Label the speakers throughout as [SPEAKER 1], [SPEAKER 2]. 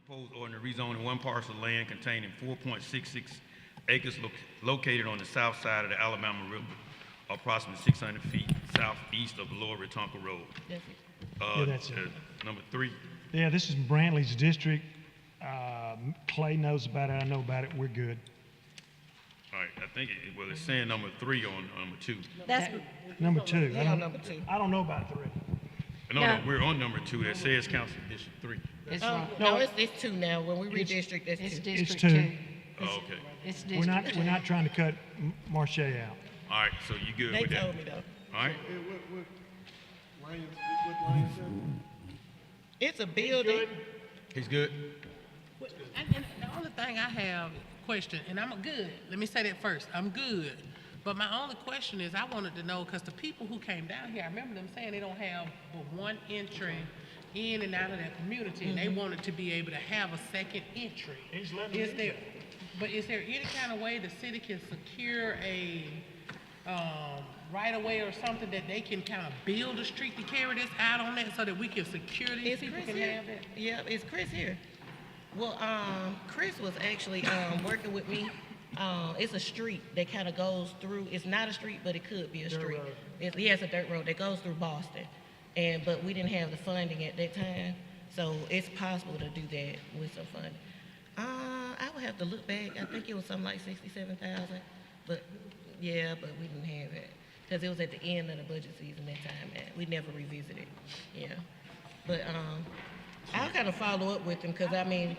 [SPEAKER 1] proposed ordinance rezoning one parcel of land containing four point six six acres loc- located on the south side of the Alabama River, approximately six hundred feet southeast of Lower Retonka Road. Uh,
[SPEAKER 2] Yeah, that's it.
[SPEAKER 1] uh, Number three,
[SPEAKER 2] Yeah, this is Brantley's district. Um, Clay knows about it, I know about it, we're good.
[SPEAKER 1] all right, I think, it- well, it's saying number three on number two.
[SPEAKER 3] That's,
[SPEAKER 2] Number two. I
[SPEAKER 4] Yeah,
[SPEAKER 2] don't-
[SPEAKER 4] number two.
[SPEAKER 2] I don't know about three.
[SPEAKER 1] No, no,
[SPEAKER 3] No.
[SPEAKER 1] we're on number two, that says council district three.
[SPEAKER 4] It's,
[SPEAKER 5] Oh,
[SPEAKER 4] not-
[SPEAKER 2] no.
[SPEAKER 4] no, it's, it's two now. When we redistrict,
[SPEAKER 5] It's
[SPEAKER 4] it's two.
[SPEAKER 5] District
[SPEAKER 2] two.
[SPEAKER 5] Two.
[SPEAKER 1] Oh, okay,
[SPEAKER 5] It's
[SPEAKER 2] We're not,
[SPEAKER 5] District
[SPEAKER 2] we're
[SPEAKER 5] Two.
[SPEAKER 2] not trying to cut M- Marche out.
[SPEAKER 1] all right, so you good
[SPEAKER 4] They
[SPEAKER 1] with that?
[SPEAKER 4] told me though.
[SPEAKER 1] All right,
[SPEAKER 6] Hey, what, what, Lions, what Lions said?
[SPEAKER 4] It's a building.
[SPEAKER 1] he's good?
[SPEAKER 7] Well, And, and the only thing I have question, and I'm good. Let me say that first. I'm good. But my only question is, I wanted to know because the people who came down here, I remember them saying they don't have but one entry in and out of that community, and they wanted to be able to have a second entry.
[SPEAKER 2] He's letting
[SPEAKER 7] Is
[SPEAKER 2] them
[SPEAKER 7] there, but is there any kind of way the city can secure a um, right of way or something that they can kind of build a street to carry this out on that so that we can secure these
[SPEAKER 4] Is
[SPEAKER 7] people
[SPEAKER 4] Chris
[SPEAKER 7] can
[SPEAKER 4] here?
[SPEAKER 7] have that?
[SPEAKER 4] Yeah, is Chris here? Well, um, Chris was actually, um, working with me. Uh, it's a street that kind of goes through, it's not a street, but it could be a street. It's, yeah, it's a dirt road that goes through Boston. And, but we didn't have the funding at that time, so it's possible to do that with some funding. Uh, I would have to look back. I think it was something like sixty-seven thousand, but, yeah, but we didn't have it. Cause it was at the end of the budget season that time, and we never revisited, yeah. But, um, I'll kind of follow up with them, cause I mean,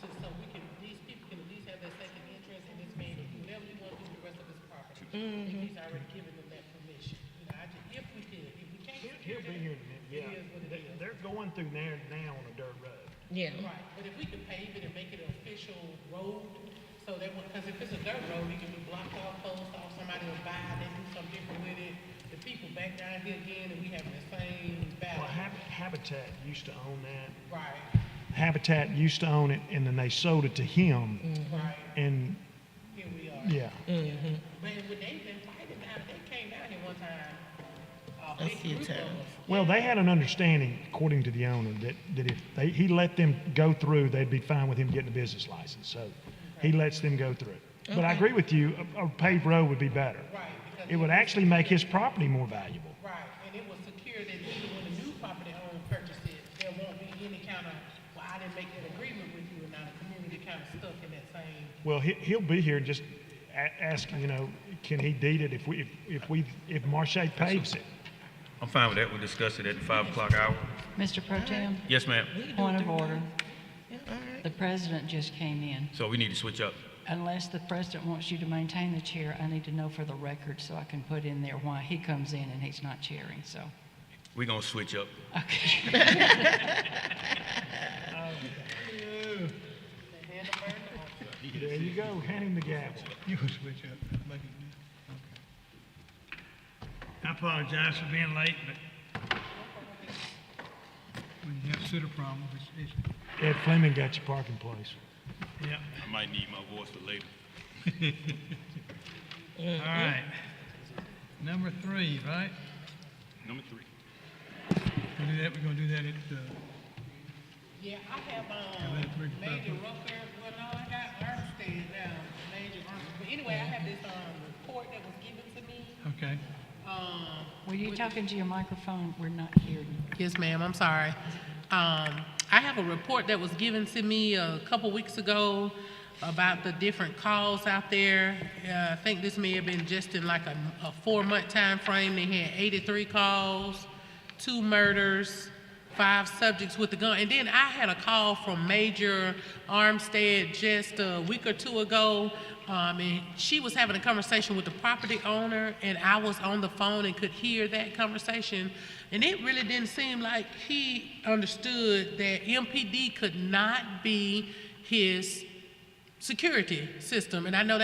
[SPEAKER 7] So, so we can, these people can at least have their second interest in this man, whatever you want to do with the rest of his property. If he's already given them that permission, you know, I just, if we could, if we can't.
[SPEAKER 2] He'll he'll be here in a minute, yeah. They- They're going through there now on a dirt road.
[SPEAKER 4] yeah.
[SPEAKER 7] Right, but if we could pave it and make it an official road, so that, because if it's a dirt road, it can be blocked off, closed off, somebody will buy it, they do something different with it. The people back down here again, and we having the same
[SPEAKER 2] Well,
[SPEAKER 7] battle.
[SPEAKER 2] Hab- Habitat used to own that.
[SPEAKER 7] Right,
[SPEAKER 2] Habitat used to own it, and then they sold it to him,
[SPEAKER 7] right,
[SPEAKER 2] and,
[SPEAKER 7] here we are.
[SPEAKER 2] yeah.
[SPEAKER 7] But when they been fighting now, they came out here one time.
[SPEAKER 4] A
[SPEAKER 7] Uh, big
[SPEAKER 4] few
[SPEAKER 7] group of
[SPEAKER 4] times.
[SPEAKER 7] us.
[SPEAKER 2] Well, they had an understanding, according to the owner, that, that if they, he let them go through, they'd be fine with him getting a business license, so he lets them go through. But I agree with you, a, a paved road would be better.
[SPEAKER 7] Right, because-
[SPEAKER 2] It would actually make his property more valuable.
[SPEAKER 7] Right, and it was secure that even when the new property owner purchases, there won't be any kind of, well, I didn't make an agreement with you, and now the community kind of stuck in that same.
[SPEAKER 2] Well, he, he'll be here just a- asking, you know, can he deed it if we, if, if we, if Marche paves it?
[SPEAKER 1] I'm fine with that, we'll discuss it at the five o'clock hour.
[SPEAKER 5] Mr. Pro Tem,
[SPEAKER 1] Yes, ma'am,
[SPEAKER 5] point of order.
[SPEAKER 4] Yeah, all right.
[SPEAKER 5] The president just came in.
[SPEAKER 1] so we need to switch up.
[SPEAKER 5] Unless the president wants you to maintain the chair, I need to know for the record so I can put in there why he comes in and he's not chairing, so.
[SPEAKER 1] We're gonna switch up.
[SPEAKER 5] Okay.
[SPEAKER 2] There you go, hand him the gavel.
[SPEAKER 8] You can switch up, make it new.
[SPEAKER 9] I apologize for being late, but
[SPEAKER 8] When you have sewer problems, it's, it's,
[SPEAKER 2] Ed Fleming got your parking place.
[SPEAKER 1] I might need my voice for later.
[SPEAKER 8] all right. Number three, right?
[SPEAKER 1] Number three.
[SPEAKER 8] We're gonna do that, we're gonna do that at, uh,
[SPEAKER 7] Yeah, I have,
[SPEAKER 8] Yeah, that's
[SPEAKER 7] um,
[SPEAKER 8] pretty
[SPEAKER 7] Major
[SPEAKER 8] proper.
[SPEAKER 7] Rucker, well, no, I got Armstead now, Major Armstead. But anyway, I have this, um, report that was given to me,
[SPEAKER 8] okay.
[SPEAKER 7] um,
[SPEAKER 5] Were you talking to your microphone? We're not hearing you.
[SPEAKER 7] Yes, ma'am, I'm sorry. Um, I have a report that was given to me a couple weeks ago about the different calls out there. Uh, I think this may have been just in like a, a four-month time frame. They had eighty-three calls, two murders, five subjects with the gun. And then I had a call from Major Armstead just a week or two ago. Um, and she was having a conversation with the property owner, and I was on the phone and could hear that conversation. And it really didn't seem like he understood that MPD could not be his security system. And I know